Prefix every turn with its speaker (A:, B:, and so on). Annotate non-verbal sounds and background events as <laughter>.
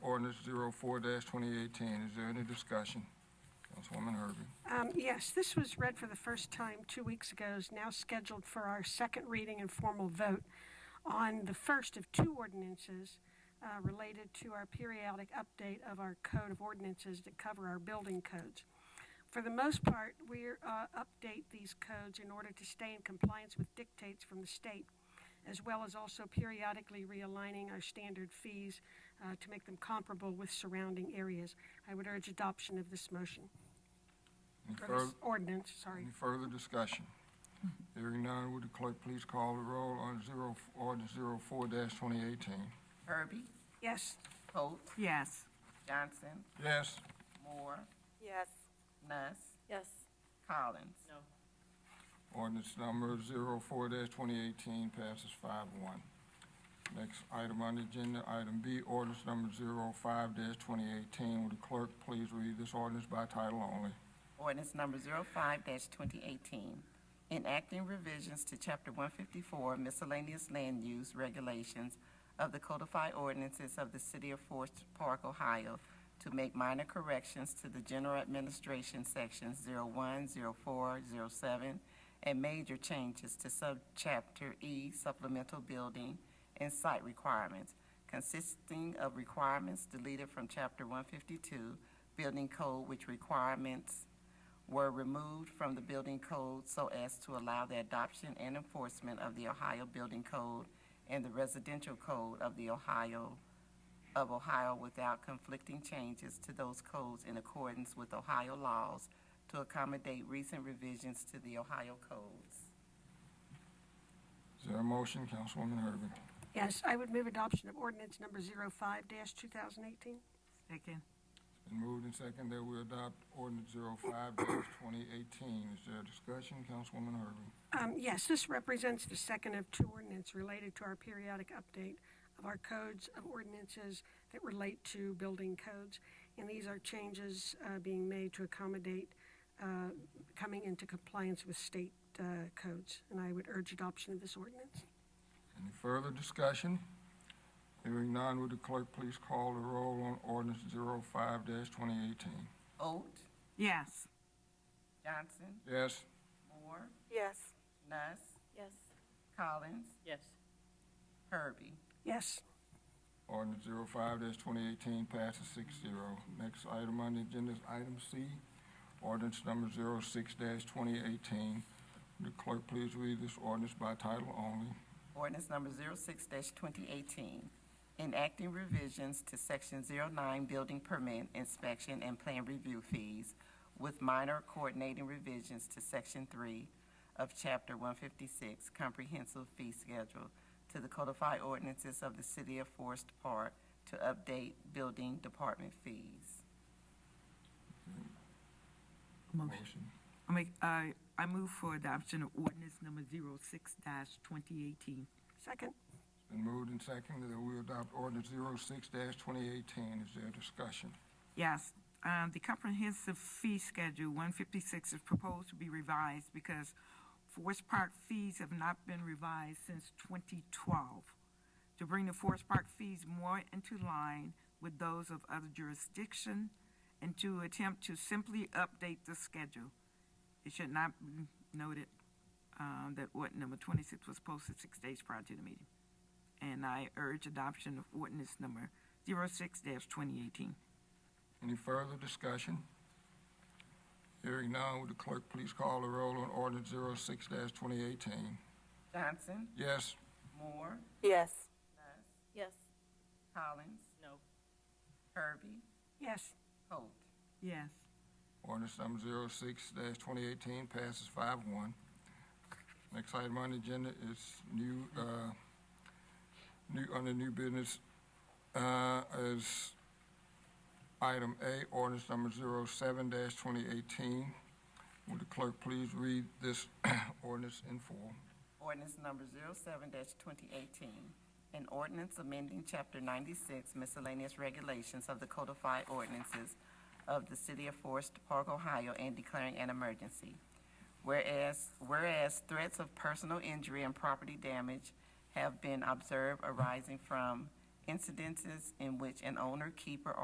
A: 2018. Is there any discussion? Councilwoman Herbie.
B: Um, Yes, this was read for the first time two weeks ago, is now scheduled for our second reading and formal vote on the first of two ordinances uh, related to our periodic update of our code of ordinances that cover our building codes. For the most part, we uh, update these codes in order to stay in compliance with dictates from the state, as well as also periodically realigning our standard fees uh, to make them comparable with surrounding areas. I would urge adoption of this motion.
A: Any
B: Or
A: further,
B: this ordinance, sorry.
A: any further discussion? Hearing none, would the clerk please call the roll on zero, ordinance 04-2018?
C: Herbie,
B: Yes,
C: Holt,
D: Yes.
C: Johnson,
A: Yes.
C: Moore,
E: Yes.
C: Nuss,
E: Yes.
C: Collins. No.
A: Ordinance number 04-2018 passes 5-1. Next item on the agenda, item B, ordinance number 05-2018. Would the clerk please read this ordinance by title only?
C: Ordinance number 05-2018, enacting revisions to Chapter 154 miscellaneous land use regulations of the codified ordinances of the City of Forest Park, Ohio, to make minor corrections to the general administration sections 01, 04, 07, and major changes to subchapter E supplemental building and site requirements, consisting of requirements deleted from Chapter 152 Building Code, which requirements were removed from the building code so as to allow the adoption and enforcement of the Ohio Building Code and the Residential Code of the Ohio, of Ohio without conflicting changes to those codes in accordance with Ohio laws to accommodate recent revisions to the Ohio codes.
A: Is there a motion, Councilwoman Herbie?
B: yes, I would move adoption of ordinance number 05-2018.
D: Second.
A: Been moved and seconded that we adopt ordinance 05-2018. Is there a discussion, Councilwoman Herbie?
B: Um, Yes, this represents the second of two ordinance related to our periodic update of our codes of ordinances that relate to building codes. And these are changes uh, being made to accommodate uh, coming into compliance with state uh, codes. And I would urge adoption of this ordinance.
A: Any further discussion? Hearing none, would the clerk please call the roll on ordinance 05-2018?
C: Oat,
D: Yes.
C: Johnson,
A: Yes.
C: Moore,
E: Yes.
C: Nuss,
E: Yes.
C: Collins,
F: Yes.
C: Herbie.
B: Yes.
A: Ordinance 05-2018 passes 6-0. Next item on the agenda is item C, ordinance number 06-2018. Would the clerk please read this ordinance by title only?
C: Ordinance number 06-2018, enacting revisions to Section 09 Building Permit Inspection and Plan Review Fees with minor coordinating revisions to Section 3 of Chapter 156 Comprehensive Fee Schedule to the codified ordinances of the City of Forest Park to update building department fees.
D: Motion. I make, I, uh, I move for adoption of ordinance number zero six dash twenty eighteen.
B: Second?
A: Been moved and seconded that we adopt ordinance 06-2018. Is there discussion?
D: Yes, um, the comprehensive fee schedule one fifty-six is proposed to be revised because Forest Park fees have not been revised since twenty twelve. To bring the Forest Park fees more into line with those of other jurisdiction and to attempt to simply update the schedule. It should not be noted, um, that ordinance number twenty-six was posted six days prior to the meeting. And I urge adoption of ordinance number zero-six dash twenty eighteen.
A: Any further discussion? Hearing none, would the clerk please call the roll on ordinance 06-2018?
C: Johnson,
A: Yes.
C: Moore,
E: Yes.
C: Nuss,
E: Yes.
C: Collins,
F: No.
C: Herbie,
B: Yes.
C: Holt.
D: Yes.
A: Ordinance number 06-2018 passes 5-1. Next item on the agenda is new, uh, new, under new business, uh, is item A, ordinance number 07-2018. Would the clerk please read this <clears throat> ordinance in full?
C: Ordinance number 07-2018, an ordinance amending Chapter 96 miscellaneous regulations of the codified ordinances of the City of Forest Park, Ohio, and declaring an emergency. Whereas, whereas threats of personal injury and property damage have been observed arising from incidences in which an owner, keeper,